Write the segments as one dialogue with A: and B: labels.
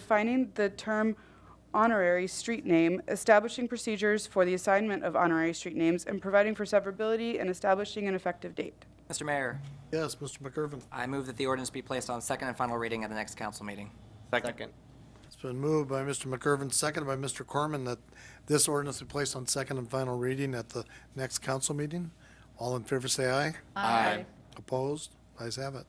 A: defining the term honorary street name, establishing procedures for the assignment of honorary street names, and providing for severability and establishing an effective date.
B: Mr. Mayor,
C: Yes, Mr. McIrvin.
B: I move that the ordinance be placed on second and final reading at the next council meeting.
D: Second.
C: It's been moved by Mr. McIrvin, seconded by Mr. Corman, that this ordinance be placed on second and final reading at the next council meeting. All in favor, say aye.
D: Aye.
C: Opposed? Ayes have it.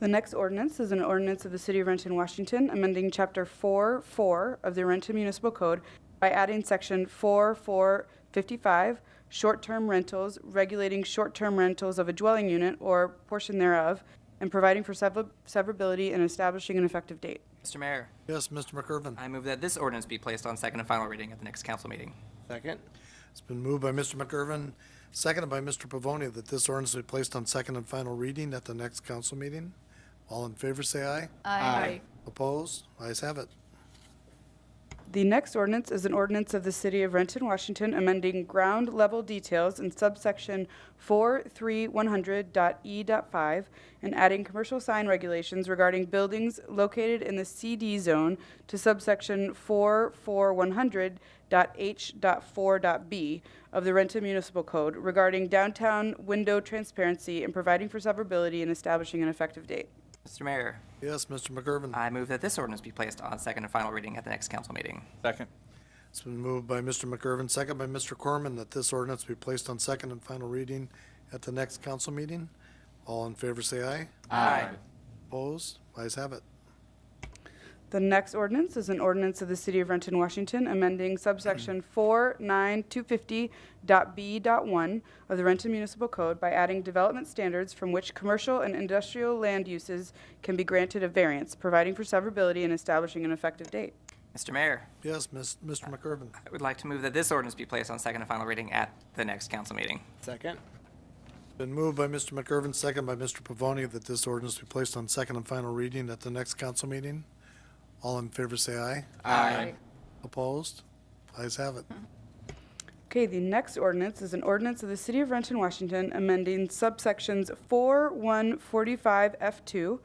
A: The next ordinance is an ordinance of the City of Renton, Washington, amending Chapter 4-4 of the Renton Municipal Code by adding Section 4455, short-term rentals, regulating short-term rentals of a dwelling unit or portion thereof, and providing for sever- severability and establishing an effective date.
B: Mr. Mayor,
C: Yes, Mr. McIrvin.
B: I move that this ordinance be placed on second and final reading at the next council meeting.
D: Second.
C: It's been moved by Mr. McIrvin, seconded by Mr. Pavoni, that this ordinance be placed on second and final reading at the next council meeting. All in favor, say aye.
D: Aye.
C: Opposed? Ayes have it.
A: The next ordinance is an ordinance of the City of Renton, Washington, amending ground level details in subsection 43100.E.5 E and adding commercial sign regulations regarding buildings located in the CD zone to subsection 44100.H.4.B of the Renton Municipal Code regarding downtown window transparency and providing for severability and establishing an effective date.
B: Mr. Mayor,
C: Yes, Mr. McIrvin.
B: I move that this ordinance be placed on second and final reading at the next council meeting.
D: Second.
C: It's been moved by Mr. McIrvin, second by Mr. Corman, that this ordinance be placed on second and final reading at the next council meeting. All in favor, say aye.
B: Aye.
C: Opposed? Ayes have it.
A: The next ordinance is an ordinance of the City of Renton, Washington, amending subsection 49250.b.1 of the Renton Municipal Code by adding development standards from which commercial and industrial land uses can be granted a variance, providing for severability and establishing an effective date.
B: Mr. Mayor,
C: Yes, Ms. Mr. McIrvin.
B: I would like to move that this ordinance be placed on second and final reading at the next council meeting.
D: Second.
C: Been moved by Mr. McIrvin, second by Mr. Pavoni, that this ordinance be placed on second and final reading at the next council meeting. All in favor, say aye.
D: Aye.
C: Opposed? Ayes have it.
A: Okay, the next ordinance is an ordinance of the City of Renton, Washington, amending subsections 4145F2,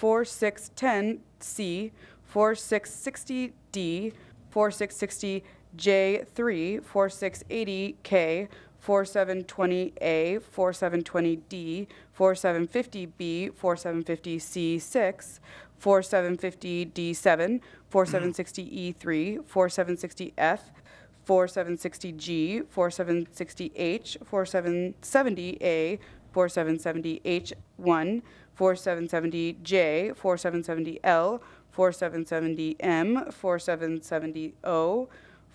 A: 4610C, 4660D, 4660J3, 4680K, 4720A, 4720D, 4750B, 4750C6, 4750D7, E 4760E3, 4760F, 4760G, 4760H, 4770A, 4770H1, 4770J, 4770L, 4770M, 4770O,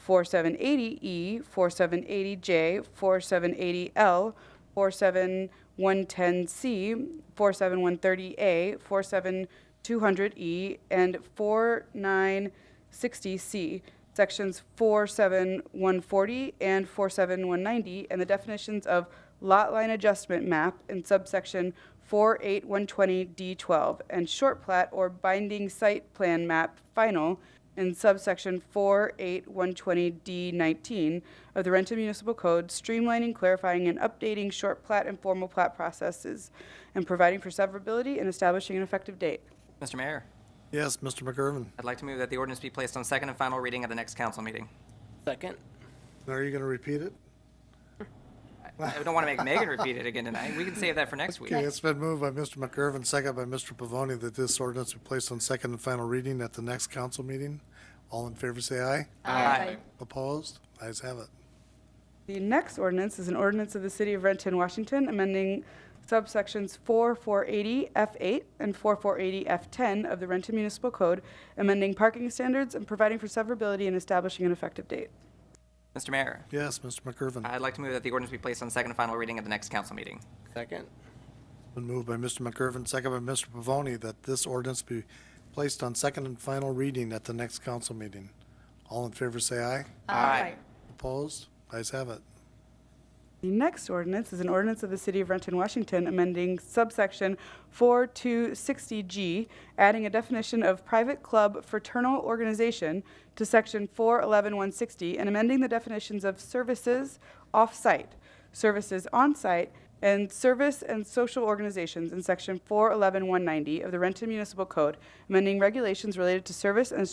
A: 4780E, 4780J, 4780L, 47110C, 47130A, 47200E, E, and 4960C, Sections 47140 and 47190, and the definitions of lot line adjustment map in subsection 48120D12, and short plat or binding site plan map final in subsection 48120D19 of the Renton Municipal Code, streamlining, clarifying, and updating short plat and formal plat processes, and providing for severability and establishing an effective date.
B: Mr. Mayor,
C: Yes, Mr. McIrvin.
B: I'd like to move that the ordinance be placed on second and final reading at the next council meeting.
D: Second.
C: Are you going to repeat it?
B: I don't want to make Megan repeat it again tonight. We can save that for next week.
C: Okay, it's been moved by Mr. McIrvin, second by Mr. Pavoni, that this ordinance be placed on second and final reading at the next council meeting. All in favor, say aye.
B: Aye.
C: Opposed? Ayes have it.
A: The next ordinance is an ordinance of the City of Renton, Washington, amending subsections 4480F8 and 4480F10 of the Renton Municipal Code, amending parking standards and providing for severability and establishing an effective date.
B: Mr. Mayor,
C: Yes, Mr. McIrvin.
B: I'd like to move that the ordinance be placed on second and final reading at the next council meeting.
D: Second.
C: Been moved by Mr. McIrvin, second by Mr. Pavoni, that this ordinance be placed on second and final reading at the next council meeting. All in favor, say aye.
B: Aye.
C: Opposed? Ayes have it.
A: The next ordinance is an ordinance of the City of Renton, Washington, amending subsection 4260G, adding a definition of private club fraternal organization to section 411160, and amending the definitions of services off-site, services on-site, and service and social organizations in section 411190 of the Renton Municipal Code, amending regulations related to service and